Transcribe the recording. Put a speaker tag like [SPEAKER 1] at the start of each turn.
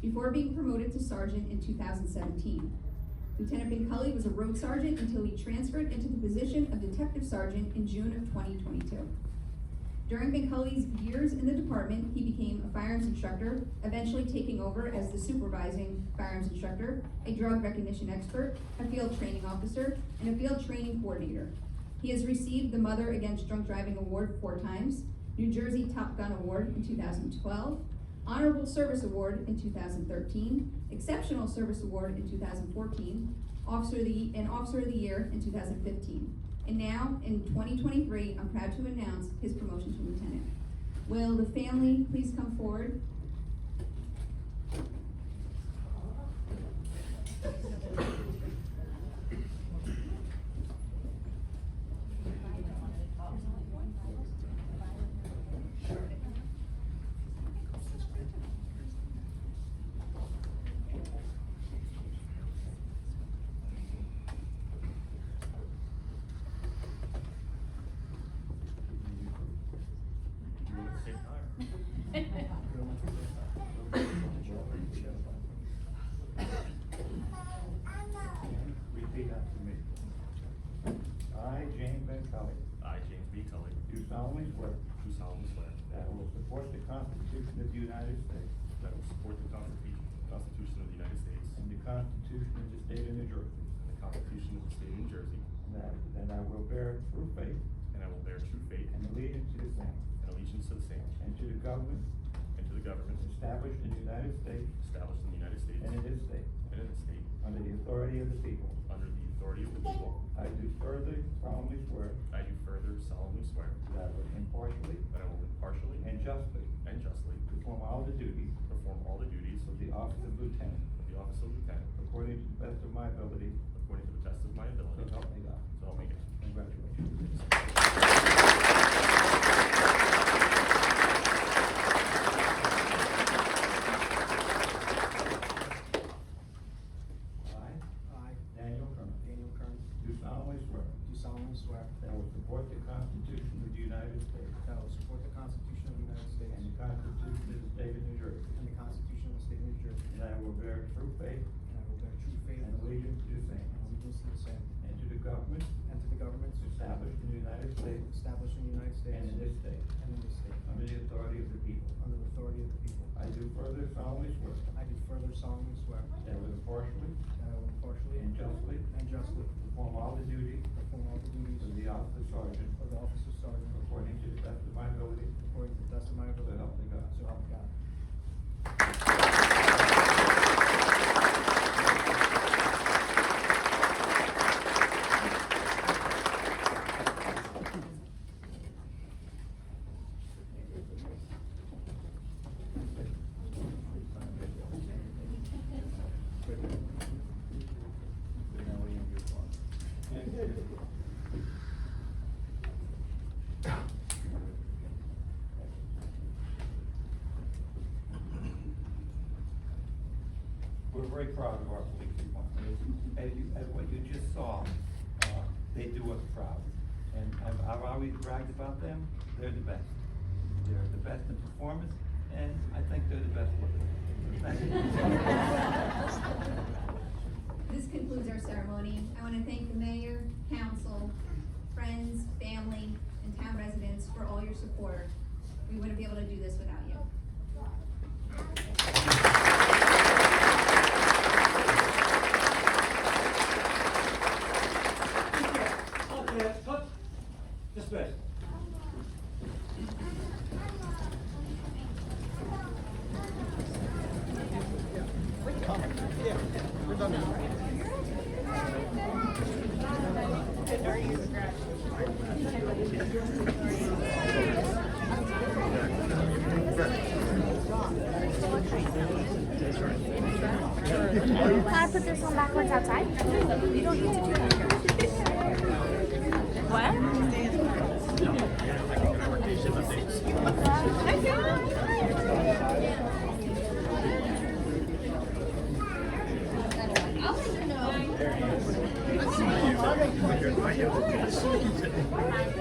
[SPEAKER 1] before being promoted to sergeant in 2017. Lieutenant Binculi was a road sergeant until he transferred into the position of detective sergeant in June of 2022. During Binculi's years in the department, he became a firearms instructor, eventually taking over as the supervising firearms instructor, a drug recognition expert, a field training officer, and a field training coordinator. He has received the Mother Against Drunk Driving Award four times, New Jersey Top Gun Award in two thousand twelve, Honorable Service Award in two thousand thirteen, Exceptional Service Award in two thousand fourteen, Officer of the, and Officer of the Year in two thousand fifteen. And now, in twenty twenty-three, I'm proud to announce his promotion to lieutenant. Will the family please come forward?
[SPEAKER 2] Repeat after me. I, James Ben Kelly,
[SPEAKER 3] I, James B. Tully,
[SPEAKER 2] do solemnly swear
[SPEAKER 3] do solemnly swear
[SPEAKER 2] that I will support the Constitution of the United States
[SPEAKER 3] that I will support the Constitu- Constitution of the United States
[SPEAKER 2] and the Constitution of the State of New Jersey,
[SPEAKER 3] and the Constitution of the State of New Jersey,
[SPEAKER 2] and that, that I will bear true faith
[SPEAKER 3] and I will bear true faith
[SPEAKER 2] and allegiance to the same
[SPEAKER 3] and allegiance to the same
[SPEAKER 2] and to the government
[SPEAKER 3] and to the government
[SPEAKER 2] established in the United States
[SPEAKER 3] established in the United States
[SPEAKER 2] and in
[SPEAKER 3] and
[SPEAKER 2] this state,
[SPEAKER 3] in the state
[SPEAKER 2] under the authority of the people.
[SPEAKER 3] under the authority of the people.
[SPEAKER 2] I do further solemnly swear
[SPEAKER 3] I do further solemnly swear
[SPEAKER 2] that I will impartially
[SPEAKER 3] that I will impartially
[SPEAKER 2] and justly
[SPEAKER 3] and justly
[SPEAKER 2] perform all the duties
[SPEAKER 3] perform all the duties
[SPEAKER 2] of the office of lieutenant
[SPEAKER 3] of the office of lieutenant
[SPEAKER 2] according to the best of my ability,
[SPEAKER 3] according to the best of my ability.
[SPEAKER 2] so help me God.
[SPEAKER 3] So help me God.
[SPEAKER 2] Congratulations. I,
[SPEAKER 4] I,
[SPEAKER 2] Daniel Kermit,
[SPEAKER 4] Daniel Kern,
[SPEAKER 2] do solemnly swear
[SPEAKER 4] do solemnly swear
[SPEAKER 2] that I will support the Constitution of the United States
[SPEAKER 4] that I will support the Constitution of the United States
[SPEAKER 2] and the Constitution of the State of New Jersey,
[SPEAKER 4] and the Constitution of the State of New Jersey,
[SPEAKER 2] and I will bear true faith
[SPEAKER 4] and I will bear true faith
[SPEAKER 2] and
[SPEAKER 4] and
[SPEAKER 2] allegiance to the same,
[SPEAKER 4] allegiance to the same,
[SPEAKER 2] and to the government
[SPEAKER 4] and to the governments
[SPEAKER 2] established in the United States
[SPEAKER 4] established in the United States
[SPEAKER 2] and in this state,
[SPEAKER 4] and in this state,
[SPEAKER 2] under the authority of the people.
[SPEAKER 4] under the authority of the people.
[SPEAKER 2] I do further solemnly swear
[SPEAKER 4] I do further solemnly swear
[SPEAKER 2] that I will impartially
[SPEAKER 4] that I will impartially
[SPEAKER 2] and justly
[SPEAKER 4] and justly
[SPEAKER 2] perform all the duties
[SPEAKER 4] perform all the duties
[SPEAKER 2] of the office of sergeant
[SPEAKER 4] of the office of sergeant
[SPEAKER 2] according to the best of my ability,
[SPEAKER 4] according to the best of my
[SPEAKER 2] so
[SPEAKER 4] ability.
[SPEAKER 2] help me God.
[SPEAKER 4] So help me God.
[SPEAKER 2] We're very proud of our police department. As you, as what you just saw, uh, they do us proud. And I've, I've always bragged about them, they're the best. They're the best in performance, and I think they're the best with it. Thank you.
[SPEAKER 1] This concludes our ceremony. I want to thank the mayor, council, friends, family, and town residents for all your support. We wouldn't be able to do this without you.
[SPEAKER 5] Okay, cut. This way.
[SPEAKER 6] Can I put this one backwards outside? You don't need to do that. What?